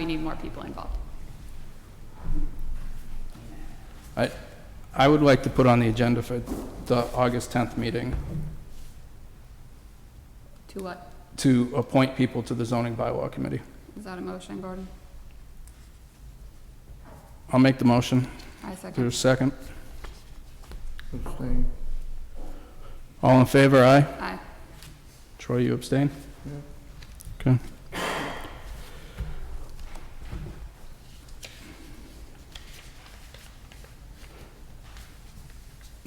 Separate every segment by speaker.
Speaker 1: you need more people involved.
Speaker 2: I, I would like to put on the agenda for the August 10th meeting
Speaker 1: To what?
Speaker 2: to appoint people to the zoning bylaw committee.
Speaker 1: Is that a motion, Gordon?
Speaker 2: I'll make the motion.
Speaker 1: I
Speaker 2: Is there a
Speaker 1: second.
Speaker 2: second?
Speaker 3: Abstain.
Speaker 2: All in favor, aye?
Speaker 1: Aye.
Speaker 2: Troy, you abstain?
Speaker 3: Yeah.
Speaker 2: Okay.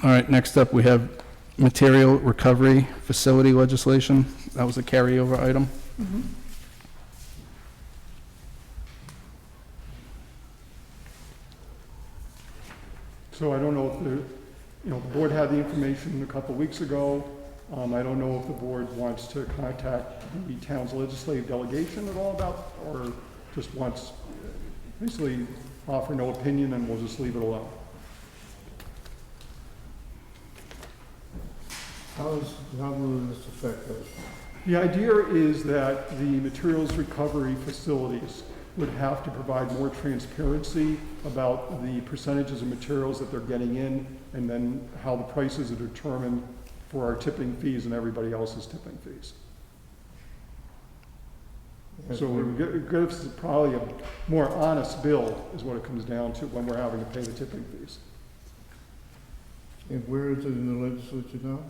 Speaker 2: All right, next up, we have material recovery facility legislation. That was a carryover item.
Speaker 4: So I don't know if the, you know, the board had the information a couple weeks ago. Um, I don't know if the board wants to contact the town's legislative delegation at all about, or just wants, basically offer no opinion and we'll just leave it alone.
Speaker 3: How is, how will this affect us?
Speaker 4: The idea is that the materials recovery facilities would have to provide more transparency about the percentages of materials that they're getting in and then how the prices are determined for our tipping fees and everybody else's tipping fees. So we get- it gives us probably a more honest bill is what it comes down to when we're having to pay the tipping fees.
Speaker 3: And where is it in the legislature now?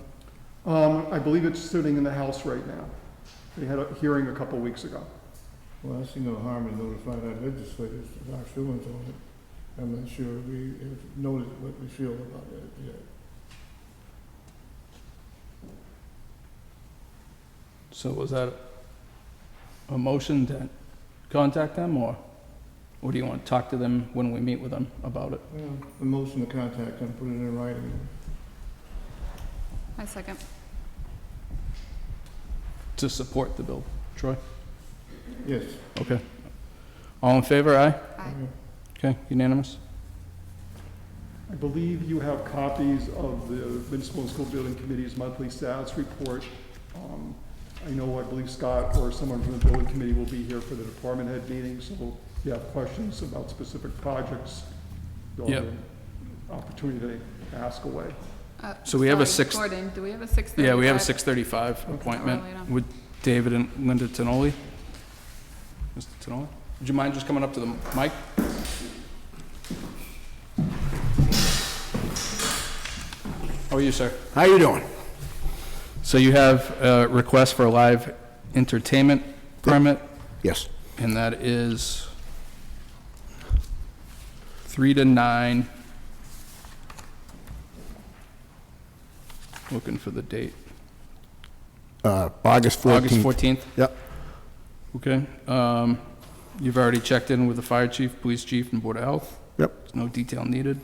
Speaker 4: Um, I believe it's sitting in the House right now. They had a hearing a couple weeks ago.
Speaker 3: Well, I see no harm in notifying our legislators of our feelings on it. I'm not sure we have noted what we feel about it yet.
Speaker 2: So was that a motion to contact them, or, or do you want to talk to them when we meet with them about it?
Speaker 3: Well, the motion to contact them, put it in writing.
Speaker 1: I second.
Speaker 2: To support the bill. Troy?
Speaker 3: Yes.
Speaker 2: Okay. All in favor, aye?
Speaker 1: Aye.
Speaker 2: Okay, unanimous?
Speaker 4: I believe you have copies of the Municipal and School Building Committee's monthly status report. Um, I know, I believe Scott or someone from the building committee will be here for the department head meeting, so if you have questions about specific projects, you'll have
Speaker 2: Yep.
Speaker 4: the opportunity to ask away.
Speaker 1: Uh,
Speaker 2: So we have a
Speaker 1: sorry,
Speaker 2: six-
Speaker 1: Gordon, do we have a six thirty-five? Oh,
Speaker 2: Yeah, we have a 6:35 appointment
Speaker 1: Not really, no.
Speaker 2: with David and Linda Tenoli. Mr. Tenoli, would you mind just coming up to the mic? How are you, sir?
Speaker 5: How you doing?
Speaker 2: So you have a request for a live entertainment permit,
Speaker 5: Yes.
Speaker 2: and that is three to nine. Looking for the date.
Speaker 5: Uh, August
Speaker 2: August
Speaker 5: 14th.
Speaker 2: 14th?
Speaker 5: Yep.
Speaker 2: Okay. um, You've already checked in with the fire chief, police chief, and board of health?
Speaker 5: Yep.
Speaker 2: There's No detail needed.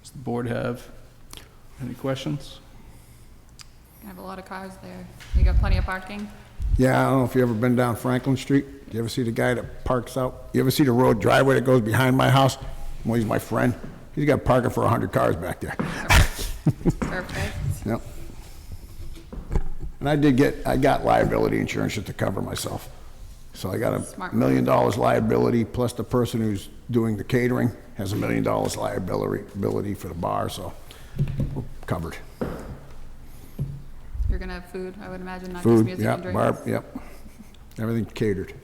Speaker 2: Does the board have any questions?
Speaker 1: You have a lot of cars there. You got plenty of parking?
Speaker 5: Yeah, I don't know if you ever been down Franklin Street. You ever see the guy that parks out? You ever see the road driveway that goes behind my house? Well, he's my friend. He's got parking for 100 cars back there.
Speaker 1: Perfect.
Speaker 5: Yep. And I did get, I got liability insurance just to cover myself. So I got
Speaker 1: Smart.
Speaker 5: a million dollars liability, plus the person who's doing the catering has a million dollars liability ability for the bar, so we're covered.
Speaker 1: You're gonna have food, I would imagine, not just
Speaker 5: Food,
Speaker 1: music and
Speaker 5: yep,
Speaker 1: drinks.
Speaker 5: bar, yep. Everything catered.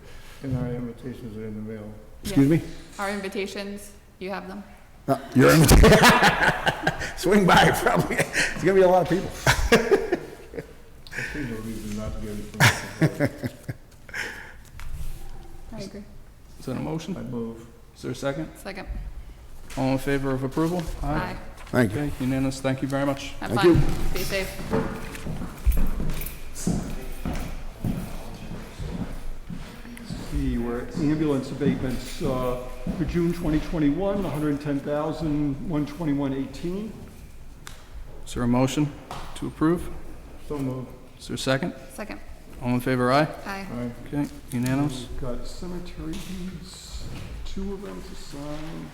Speaker 3: And our invitations are in the mail.
Speaker 5: Excuse me?
Speaker 1: Our invitations, you have them.
Speaker 5: Uh, You're in. Swing by, probably. It's gonna be a lot of people.
Speaker 3: I see no reason not to give it to them.
Speaker 1: I agree.
Speaker 2: Is that a motion?
Speaker 3: I move.
Speaker 2: Is there a second?
Speaker 1: Second.
Speaker 2: All in favor of approval?
Speaker 1: Aye.
Speaker 5: Thank you.
Speaker 2: Okay, unanimous. Thank you very much.
Speaker 1: Have
Speaker 5: Thank
Speaker 1: fun. Be safe.
Speaker 4: The where ambulance abatements uh, for June 2021, 110,000, 121.18.
Speaker 2: Is there a motion to approve?
Speaker 3: So move.
Speaker 2: Is there a second?
Speaker 1: Second.
Speaker 2: All in favor, aye?
Speaker 1: Aye.
Speaker 3: Aye.
Speaker 2: Okay, unanimous.
Speaker 4: We've got cemetery deeds, two of them to sign.